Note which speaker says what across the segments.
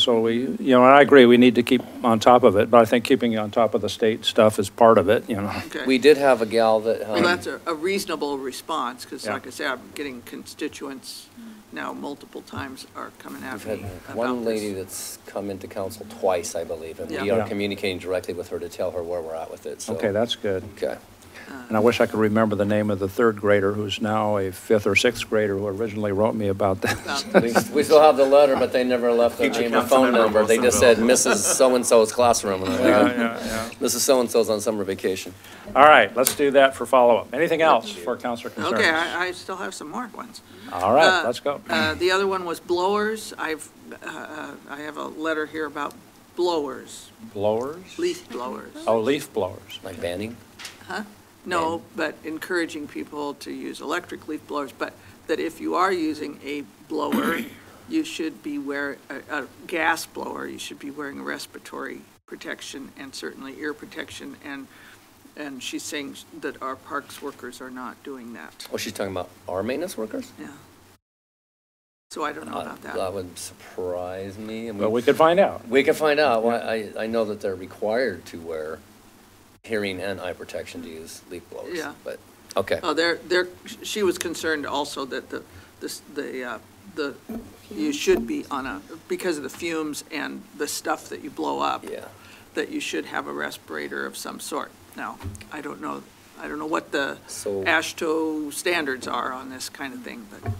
Speaker 1: So we, you know, and I agree, we need to keep on top of it, but I think keeping on top of the state stuff is part of it, you know.
Speaker 2: Okay.
Speaker 3: We did have a gal that,
Speaker 2: Well,
Speaker 3: um,
Speaker 2: that's a a reasonable response, because
Speaker 1: Yeah.
Speaker 2: like I say, I'm getting constituents now multiple times are coming
Speaker 3: we've
Speaker 2: at
Speaker 3: had uh,
Speaker 2: me about
Speaker 3: one lady
Speaker 2: this.
Speaker 3: that's come into council twice, I believe, and we
Speaker 2: Yeah.
Speaker 3: are
Speaker 1: Yeah.
Speaker 3: communicating directly with her to tell her where we're at with it, so.
Speaker 1: Okay, that's good.
Speaker 3: Okay.
Speaker 1: And I wish I could remember the name of the third grader who's now a fifth or sixth grader who originally wrote me about this.
Speaker 2: About
Speaker 3: We we still have the letter, but they never left the
Speaker 4: Future
Speaker 3: name or
Speaker 4: council
Speaker 3: phone
Speaker 4: member
Speaker 3: number. They just said
Speaker 4: Wilsonville.
Speaker 3: Mrs. So-and-so's classroom. and I'm
Speaker 1: Yeah,
Speaker 3: like,
Speaker 1: yeah, yeah.
Speaker 3: Mrs. So-and-so's on summer vacation.
Speaker 1: All right, let's do that for follow-up. Anything else for council concerns?
Speaker 2: Okay, I, I still have some more ones.
Speaker 1: All right,
Speaker 2: Uh,
Speaker 1: let's go.
Speaker 2: Uh, The other one was blowers. I've, uh, I have a letter here about blowers,
Speaker 1: Blowers?
Speaker 2: leaf blowers.
Speaker 1: Oh, leaf blowers.
Speaker 3: Like banning?
Speaker 2: No, but encouraging people to use electric leaf blowers, but that if you are using a blower, you should be wear, a, a gas blower, you should be wearing respiratory protection and certainly ear protection. And, and she's saying that our parks workers are not doing that.
Speaker 3: Oh, she's talking about our maintenance workers?
Speaker 2: So I don't know
Speaker 3: Uh,
Speaker 2: about that.
Speaker 3: That would surprise me. and we-
Speaker 1: Well, we could find out.
Speaker 3: We can find out. Well, I, I know that they're required to wear hearing and eye protection to use leaf blowers.
Speaker 2: Yeah.
Speaker 3: But, okay,
Speaker 2: Oh, they're, they're, she was concerned also that the, this, the, uh, the, you should be on a, because of the fumes and the stuff that you blow up.
Speaker 3: yeah.
Speaker 2: that you should have a respirator of some sort. Now, I don't know, I don't know what the
Speaker 3: So
Speaker 2: ASHTO standards are on this kind of thing, but,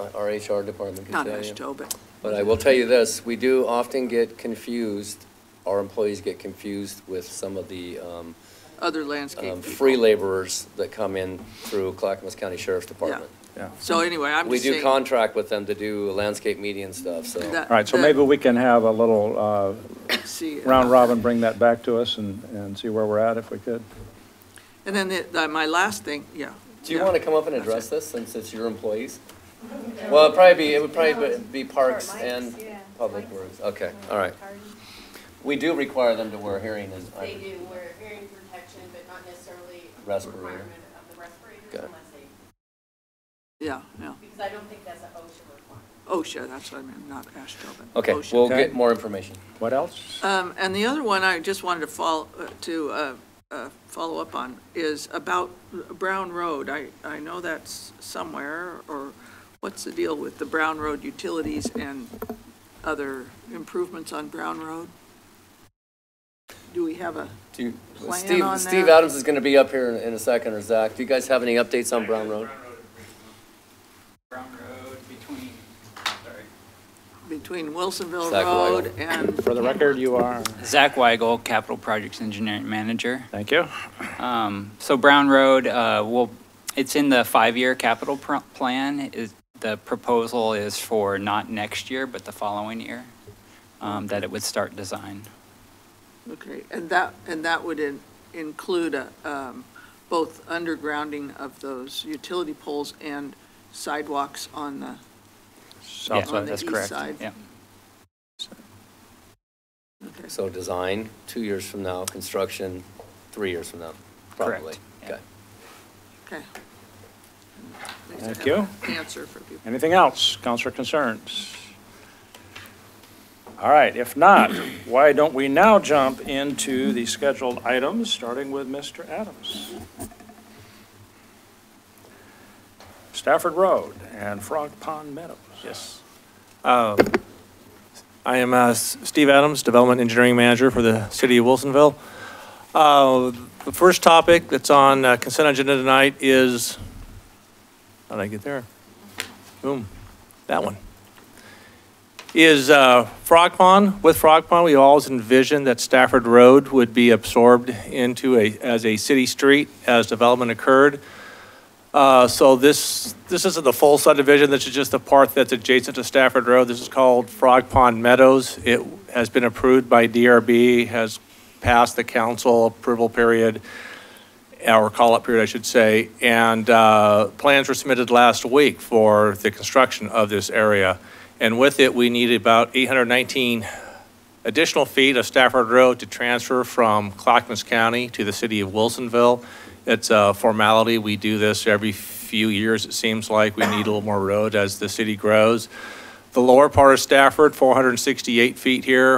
Speaker 3: uh, our HR department can
Speaker 2: not
Speaker 3: tell you.
Speaker 2: ASHTO, but,
Speaker 3: But I will tell you this, we do often get confused, our employees get confused with some of the um,
Speaker 2: other
Speaker 3: um,
Speaker 2: landscape
Speaker 3: free
Speaker 2: people.
Speaker 3: laborers that come in through Clackamas County Sheriff's Department.
Speaker 2: So anyway, I'm
Speaker 3: We
Speaker 2: just
Speaker 3: do
Speaker 2: saying.
Speaker 3: contract with them to do landscape media and stuff, so.
Speaker 2: that-
Speaker 1: All right, so
Speaker 2: that-
Speaker 1: maybe we can have a little uh,
Speaker 2: see, uh,
Speaker 1: round robin, bring that back to us and, and see where we're at if we could.
Speaker 2: And then the- the, my last thing, yeah.
Speaker 3: Do you
Speaker 2: yeah.
Speaker 3: want to come up and
Speaker 2: That's
Speaker 3: address this since it's your employees? Well, it'd probably be, it would probably be be parks
Speaker 5: Mike's,
Speaker 3: and
Speaker 5: yeah,
Speaker 3: public
Speaker 5: Mike's.
Speaker 3: works. Okay, all right.
Speaker 5: Pardon?
Speaker 3: We do require them to wear hearing and eye
Speaker 5: They do wear hearing protection, but not necessarily a
Speaker 3: Respirator.
Speaker 5: requirement of the respirators
Speaker 3: Okay.
Speaker 5: unless they,
Speaker 2: Yeah, yeah.
Speaker 5: because I don't think that's an OSHA requirement.
Speaker 2: OSHA, that's what I meant, not ASHTO, but
Speaker 3: Okay,
Speaker 2: OSHA.
Speaker 3: we'll
Speaker 1: Okay.
Speaker 3: get more information.
Speaker 1: What else?
Speaker 2: Um, And the other one I just wanted to follow, to uh, uh, follow up on is about Brown Road. I, I know that's somewhere, or what's the deal with the Brown Road utilities and other improvements on Brown Road? Do we have a,
Speaker 3: Do you-
Speaker 2: Plan
Speaker 3: Steve,
Speaker 2: on
Speaker 3: Steve
Speaker 2: that?
Speaker 3: Adams is going to be up here in- in a second, or Zach. Do you guys have any updates on Brown Road?
Speaker 6: Brown Road between, sorry.
Speaker 2: between Wilsonville
Speaker 3: Zach Weil.
Speaker 2: Road and,
Speaker 1: For the record, you are,
Speaker 6: Zach Weigel, Capital Projects Engineering Manager.
Speaker 1: thank you.
Speaker 6: Um, So Brown Road, uh, will, it's in the five-year capital pro- plan. Is- The proposal is for not next year, but the following year, um, that it would start design.
Speaker 2: okay, and that, and that would in- include a, um, both undergrounding of those utility poles and sidewalks on the,
Speaker 1: So-
Speaker 6: Yeah,
Speaker 2: On the
Speaker 6: that's
Speaker 2: east
Speaker 6: correct.
Speaker 2: side.
Speaker 6: Yeah.
Speaker 2: okay.
Speaker 3: So design, two years from now, construction, three years from now, probably.
Speaker 6: Correct, yeah.
Speaker 3: Okay.
Speaker 2: Okay.
Speaker 1: Thank you.
Speaker 2: Answer for people.
Speaker 1: Anything else, council concerns? All right, if not, why don't we now jump into the scheduled items, starting with Mr. Adams? Stafford Road and Frog Pond Meadows.
Speaker 7: Yes. I am uh, S- Steve Adams, Development Engineering Manager for the City of Wilsonville. Uh, The first topic that's on uh, consent agenda tonight is, how did I get there? Boom, that one. Is uh, Frog Pond, with Frog Pond, we always envisioned that Stafford Road would be absorbed into a, as a city street as development occurred. Uh, So this, this isn't the full subdivision, this is just the part that's adjacent to Stafford Road. This is called Frog Pond Meadows. It has been approved by DRB, has passed the council approval period, or call-up period, I should say, and uh, plans were submitted last week for the construction of this area. And with it, we need about 819 additional feet of Stafford Road to transfer from Clackamas County to the city of Wilsonville. It's a formality. We do this every few years, it seems like. We need a little more road as the city grows. the lower part of Stafford, 468 feet here,